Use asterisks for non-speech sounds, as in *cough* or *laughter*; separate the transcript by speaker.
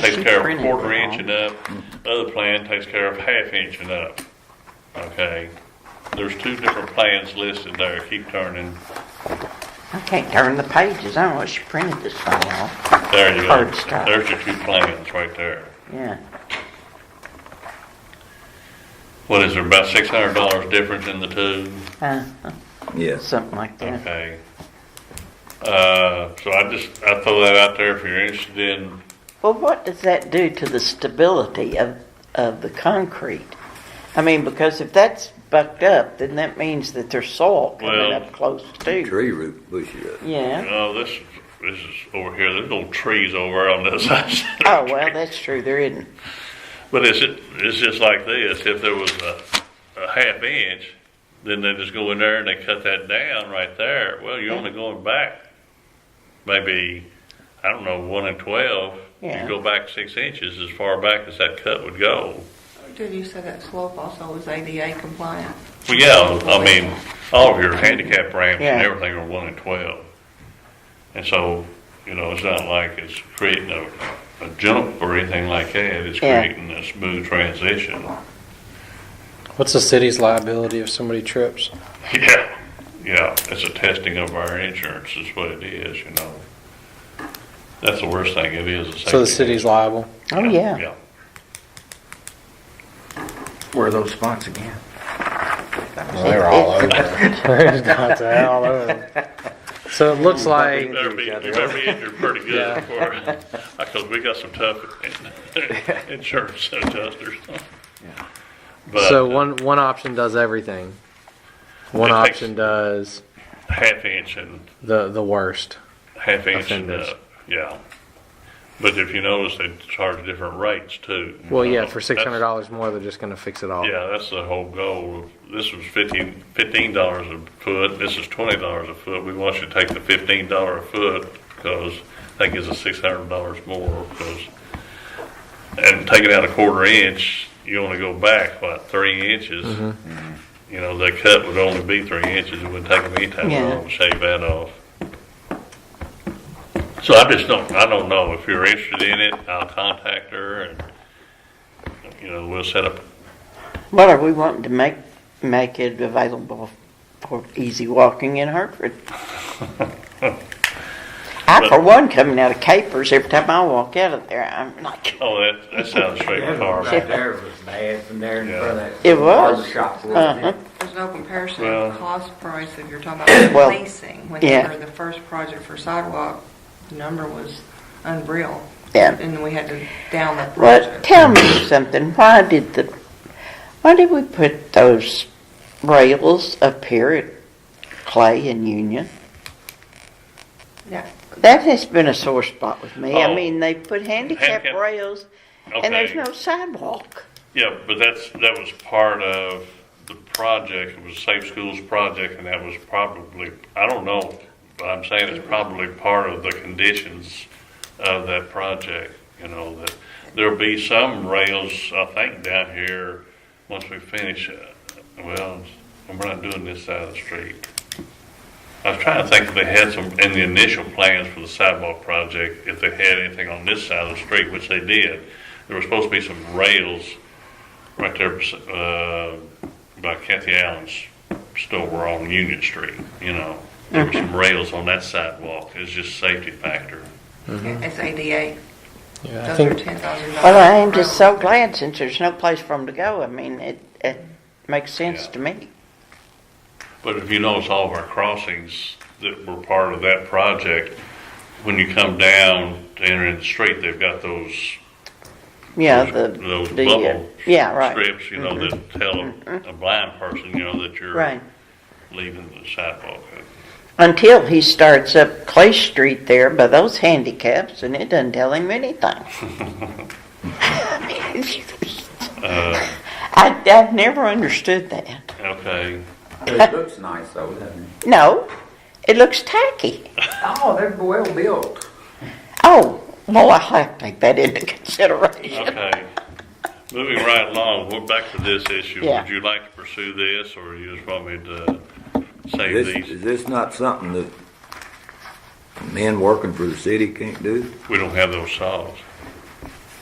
Speaker 1: takes
Speaker 2: She
Speaker 1: care of a
Speaker 2: printed
Speaker 1: quarter
Speaker 2: it
Speaker 1: inch and up. Other plan takes care of half inch and up. Okay, there's two different plans listed there. Keep turning.
Speaker 2: I can't turn the pages. I don't know what she printed this thing off.
Speaker 1: There you go.
Speaker 2: Hard stop.
Speaker 1: There's your two plans right there.
Speaker 2: Yeah.
Speaker 1: What is there, about six hundred dollars difference in the two?
Speaker 2: Uh,
Speaker 3: Yes.
Speaker 2: something like that.
Speaker 1: Okay. Uh, so I just, I throw that out there if you're interested in,
Speaker 2: Well, what does that do to the stability of, of the concrete? I mean, because if that's bucked up, then that means that there's soil coming
Speaker 1: Well-
Speaker 2: up close too.
Speaker 3: Tree root bushes.
Speaker 2: Yeah.
Speaker 1: oh, this, this is over here, there's little trees over on this *laughs* side.
Speaker 2: Oh, well, that's true. There isn't.
Speaker 1: But it's, it's just like this, if there was a, a half inch, then they just go in there and they cut that down right there. Well, you're only going back maybe, I don't know, one and twelve.
Speaker 2: Yeah.
Speaker 1: You go back six inches as far back as that cut would go.
Speaker 4: Did you say that slope also was ADA compliant?
Speaker 1: Well, yeah, I mean, all of your handicap ramps and
Speaker 2: Yeah.
Speaker 1: everything are one and twelve. And so, you know, it's not like it's creating a, a jump or anything like that, it's
Speaker 2: Yeah.
Speaker 1: creating a smooth transition.
Speaker 5: What's the city's liability if somebody trips?
Speaker 1: Yeah, yeah, it's a testing of our insurance is what it is, you know. That's the worst thing it is. is
Speaker 5: So the
Speaker 1: safety.
Speaker 5: city's liable. *laughs*
Speaker 2: Oh, yeah.
Speaker 1: Yeah,
Speaker 6: Where are those spots again?
Speaker 3: They're all over.
Speaker 5: It's got to all over. So it looks
Speaker 1: you
Speaker 5: like,
Speaker 1: better be, you better be injured pretty good before, because we got some tough in- *laughs* insurance adjusters. But,
Speaker 5: so
Speaker 1: uh,
Speaker 5: one, one option does everything. One
Speaker 1: It takes-
Speaker 5: option does
Speaker 1: half inch and
Speaker 5: the, the worst.
Speaker 1: half inch and
Speaker 5: Offenders.
Speaker 1: up, yeah. But if you notice, they charge different rates too.
Speaker 5: Well, yeah,
Speaker 1: Uh,
Speaker 5: for
Speaker 1: that's-
Speaker 5: six hundred dollars more, they're just gonna fix it all.
Speaker 1: Yeah, that's the whole goal. This was fifteen, fifteen dollars a foot, this is twenty dollars a foot. We want you to take the fifteen dollar a foot because that gives us six hundred dollars more because, and taking out a quarter inch, you only go back, what, three inches? You know, the cut would only be three inches. It wouldn't take them any time at all
Speaker 2: Yeah.
Speaker 1: to shave that off. So I just don't, I don't know. If you're interested in it, I'll contact her and, you know, we'll set up
Speaker 2: What are we wanting to make, make it available for easy walking in Hartford? I, for one, coming out of Capers, every time I walk out of there, I'm like,
Speaker 1: Oh, that, that sounds straight with
Speaker 6: Right
Speaker 1: ours.
Speaker 6: there was bad from there in front of that.
Speaker 2: It was.
Speaker 6: barber Shop, wasn't
Speaker 2: uh-huh.
Speaker 6: it?
Speaker 4: There's no comparison
Speaker 1: Well-
Speaker 4: of cost price if you're talking about
Speaker 2: Well,
Speaker 4: replacing. When
Speaker 2: yeah.
Speaker 4: they were the first project for sidewalk, the number was unreal.
Speaker 2: Yeah.
Speaker 4: And we had to down that
Speaker 2: Well,
Speaker 4: project.
Speaker 2: tell me something. Why did the, why did we put those rails up here at Clay and Union?
Speaker 4: Yeah.
Speaker 2: That has been a sore spot with me.
Speaker 1: Oh.
Speaker 2: I mean, they put handicap
Speaker 1: Handicap.
Speaker 2: rails and there's
Speaker 1: Okay,
Speaker 2: no sidewalk.
Speaker 1: yeah, but that's, that was part of the project, it was Safe Schools project, and that was probably, I don't know, but I'm saying it's probably part of the conditions of that project, you know, that there'll be some rails, I think, down here, once we finish, uh, well, we're not doing this side of the street. I was trying to think if they had some, in the initial plans for the sidewalk project, if they had anything on this side of the street, which they did. There were supposed to be some rails right there, uh, by Kathy Allen's store on Union Street, you know. There were some rails on that sidewalk. It's just safety factor.
Speaker 4: It's ADA.
Speaker 5: Yeah, I
Speaker 4: Those are
Speaker 5: think,
Speaker 4: ten thousand dollars.
Speaker 2: Well, I am just so glad since there's no place for them to go. I mean, it, it makes sense
Speaker 1: Yeah.
Speaker 2: to me.
Speaker 1: But if you notice all of our crossings that were part of that project, when you come down to enter in the street, they've got those,
Speaker 2: Yeah, the,
Speaker 1: those those
Speaker 2: the, uh,
Speaker 1: bubble
Speaker 2: yeah, right, Mm-hmm.
Speaker 1: strips, you know, that tell a blind person, you know, that you're
Speaker 2: right.
Speaker 1: leaving the sidewalk.
Speaker 2: Until he starts up Clay Street there by those handicaps and it doesn't tell him anything. *laughs*
Speaker 1: *laughs* Uh,
Speaker 2: I, I've never understood that.
Speaker 1: okay.
Speaker 2: Uh-huh.
Speaker 6: It looks nice though, doesn't it?
Speaker 2: No, it looks tacky.
Speaker 6: Oh, they're well built.
Speaker 2: Oh, well, I'll have to take that into consideration.
Speaker 1: Okay. Moving right along, we're back to this issue.
Speaker 2: Yeah.
Speaker 1: Would you like to pursue this, or you just want me to save
Speaker 3: This,
Speaker 1: these?
Speaker 3: is this not something that men working for the city can't do?
Speaker 1: We don't have those saws.